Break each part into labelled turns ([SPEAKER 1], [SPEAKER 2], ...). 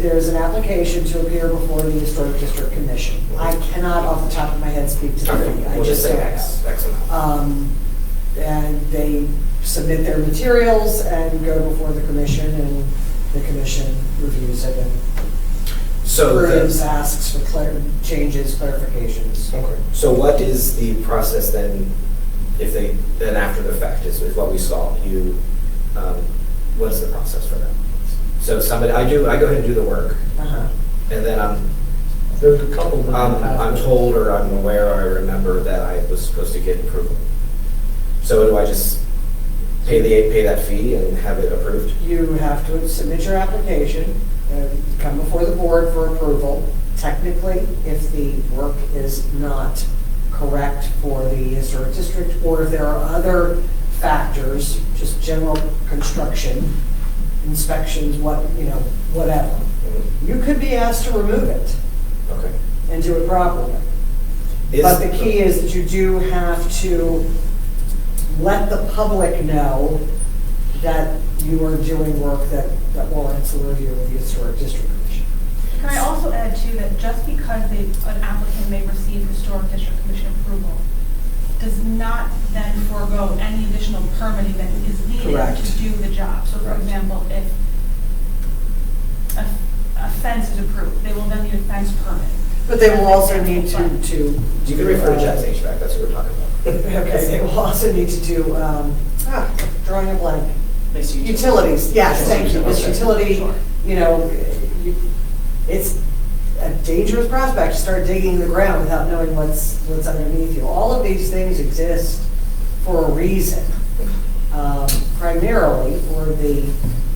[SPEAKER 1] there is an application to appear before the Historic District Commission. I cannot off the top of my head speak to the fee.
[SPEAKER 2] Okay,
[SPEAKER 1] I
[SPEAKER 2] we'll just say
[SPEAKER 1] don't
[SPEAKER 2] X, X amount.
[SPEAKER 1] know. Um, And they submit their materials and go before the commission, and the commission reviews it and
[SPEAKER 2] So the-
[SPEAKER 1] approves, asks for clar- changes, clarifications.
[SPEAKER 2] Okay. So what is the process then, if they, then after the fact, is, is what we saw, you, um, what's the process for that? So somebody, I do, I go ahead and do the work,
[SPEAKER 1] Uh-huh.
[SPEAKER 2] and then I'm,
[SPEAKER 3] There's a couple. that
[SPEAKER 2] I'm, I'm told or I'm aware or I remember that I was supposed to get approval. So do I just pay the, pay that fee and have it approved?
[SPEAKER 1] You have to submit your application, uh, come before the board for approval. Technically, if the work is not correct for the historic district, or if there are other factors, just general construction, inspections, what, you know, whatever,
[SPEAKER 2] Mhm.
[SPEAKER 1] you could be asked to remove it
[SPEAKER 2] Okay.
[SPEAKER 1] and do it properly.
[SPEAKER 2] Is-
[SPEAKER 1] But the key is that you do have to let the public know that you are doing work that, that warrants a review of the historic district commission.
[SPEAKER 4] Can I also add too, that just because they, an applicant may receive historic district commission approval, does not then forego any additional permitting that is needed
[SPEAKER 1] Correct.
[SPEAKER 4] to do the job. So for
[SPEAKER 2] Correct.
[SPEAKER 4] example, if a, a fence is approved, they will then need a fence permit.
[SPEAKER 1] But they will also need to, to.
[SPEAKER 2] You can refer to Jen's HVAC, that's what we're talking about.
[SPEAKER 1] Okay, they will also need to do, um, ah, drawing a blank.
[SPEAKER 5] Mixed utilities.
[SPEAKER 1] Utilities, yes, thank you, it's
[SPEAKER 2] Okay.
[SPEAKER 1] utility,
[SPEAKER 5] Sure.
[SPEAKER 1] you know, you- it's a dangerous prospect to start digging the ground without knowing what's, what's underneath you. All of these things exist for a reason, um, primarily for the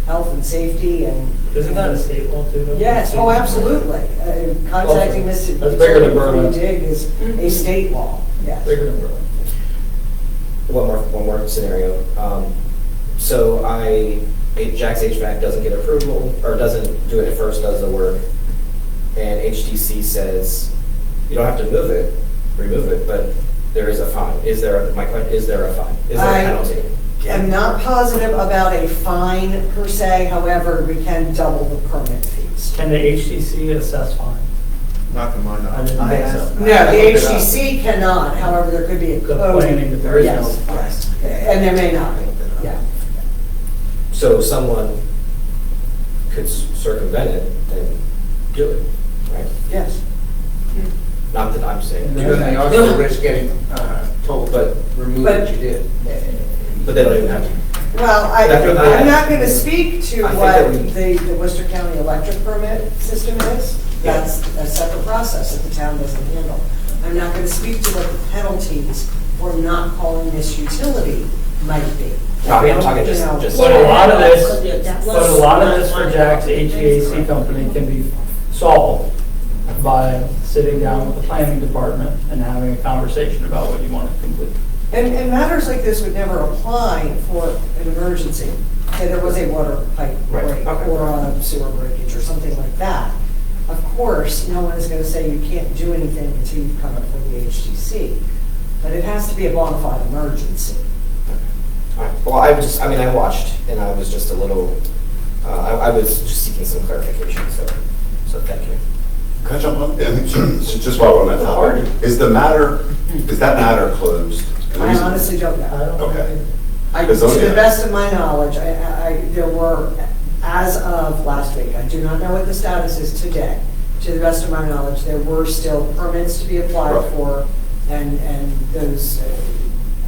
[SPEAKER 1] health and safety and.
[SPEAKER 3] Isn't that a state law too? though?
[SPEAKER 1] Yes, oh, absolutely. Uh, Contacting this.
[SPEAKER 3] That's bigger than Berlin.
[SPEAKER 1] Dig is a state law, yes.
[SPEAKER 3] Bigger than Berlin.
[SPEAKER 2] One more, one more scenario. Um, So I, it- Jack's HVAC doesn't get approval, or doesn't do it at first, does the work, and HTC says, you don't have to move it, remove it, but there is a fine. Is there, my question, is there a fine? Is there
[SPEAKER 1] I-
[SPEAKER 2] a penalty?
[SPEAKER 1] I'm not positive about a fine per se, however, we can double the permit fees.
[SPEAKER 3] Can the HTC assess fine?
[SPEAKER 6] Not to my
[SPEAKER 3] I
[SPEAKER 6] knowledge.
[SPEAKER 3] didn't think so.
[SPEAKER 1] No, the HTC cannot, however, there could be a
[SPEAKER 3] The
[SPEAKER 1] code.
[SPEAKER 3] planning, there is no
[SPEAKER 1] Oh, Yes,
[SPEAKER 3] fine.
[SPEAKER 1] yes. And there may not be, yeah.
[SPEAKER 2] So someone could circumvent it and do it, right?
[SPEAKER 1] Yes.
[SPEAKER 2] Not that I'm saying,
[SPEAKER 6] Because they also risk getting uh, told,
[SPEAKER 2] But-
[SPEAKER 6] but remove
[SPEAKER 1] but-
[SPEAKER 6] what you did.
[SPEAKER 2] but they don't even have to.
[SPEAKER 1] Well, I,
[SPEAKER 2] That's what I-
[SPEAKER 1] I'm not going to speak to
[SPEAKER 2] I think
[SPEAKER 1] what
[SPEAKER 2] that we-
[SPEAKER 1] the, the Worcester County electric permit system is.
[SPEAKER 2] Yeah.
[SPEAKER 1] That's a separate process that the town doesn't handle. I'm not going to speak to what the penalties for not calling this utility might be.
[SPEAKER 2] Robbie, I'm talking just,
[SPEAKER 1] You know,
[SPEAKER 2] just.
[SPEAKER 3] But a lot of this,
[SPEAKER 7] Yes.
[SPEAKER 3] but a lot of this for Jack's HVAC company can be solved by sitting down with the planning department and having a conversation about what you want to complete.
[SPEAKER 1] And, and matters like this would never apply for an emergency. Say there was a water pipe
[SPEAKER 2] Right,
[SPEAKER 1] break
[SPEAKER 2] okay.
[SPEAKER 1] or a sewer breakage or something like that. Of course, no one is going to say you can't do anything until you come up with the HGC. But it has to be a bona fide emergency.
[SPEAKER 2] Alright, Well, I just, I mean, I watched and I was just a little, uh, I, I was just seeking some clarification, so, so thank you.
[SPEAKER 8] Can I jump on? And so just while we're on that topic, is the matter, is that matter closed? And the
[SPEAKER 1] I
[SPEAKER 8] reason-
[SPEAKER 1] honestly don't
[SPEAKER 3] I
[SPEAKER 1] know.
[SPEAKER 3] don't.
[SPEAKER 8] Okay.
[SPEAKER 1] I, to
[SPEAKER 8] It's okay.
[SPEAKER 1] the best of my knowledge, I- I, I, there were, as of last week, I do not know what the status is today. To the best of my knowledge, there were still permits to be applied
[SPEAKER 8] Right.
[SPEAKER 1] for and, and those, uh,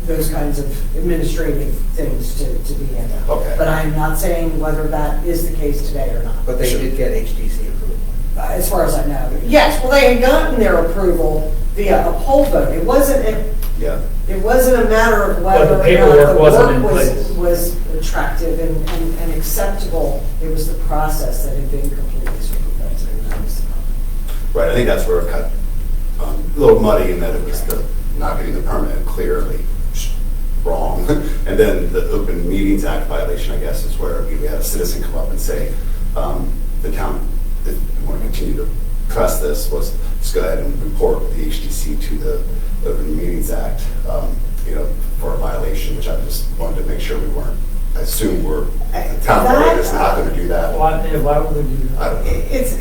[SPEAKER 1] those kinds of administrative things to, to be handled.
[SPEAKER 8] Okay.
[SPEAKER 1] But I'm not saying whether that is the case today or not.
[SPEAKER 2] But
[SPEAKER 8] they did
[SPEAKER 2] get HDC approval.
[SPEAKER 1] Uh, as far as I know. Yes, well, they had gotten their approval via a poll vote. It wasn't, a-
[SPEAKER 8] Yeah.
[SPEAKER 1] it wasn't a matter of
[SPEAKER 3] But the
[SPEAKER 1] whether or
[SPEAKER 3] paperwork
[SPEAKER 1] not the
[SPEAKER 3] wasn't in
[SPEAKER 1] work was,
[SPEAKER 3] place.
[SPEAKER 1] was attractive and, and and acceptable. It was the process that had been completely circumvented. and that was the problem.
[SPEAKER 8] Right, I think that's where it got um, a little muddy in that it was the, not getting the permit clearly sh- wrong. And then the Open Meetings Act violation, I guess, is where we we had a citizen come up and say, um, the town, if you want to continue to press this, was, just go ahead and report the HDC to the Open Meetings Act, um, you know, for a violation, which I just wanted to make sure we weren't
[SPEAKER 3] I assume we're,
[SPEAKER 9] I-
[SPEAKER 3] the town board is not gonna do that.
[SPEAKER 8] Why, yeah, why would we do that?
[SPEAKER 3] I don't know.
[SPEAKER 9] It's,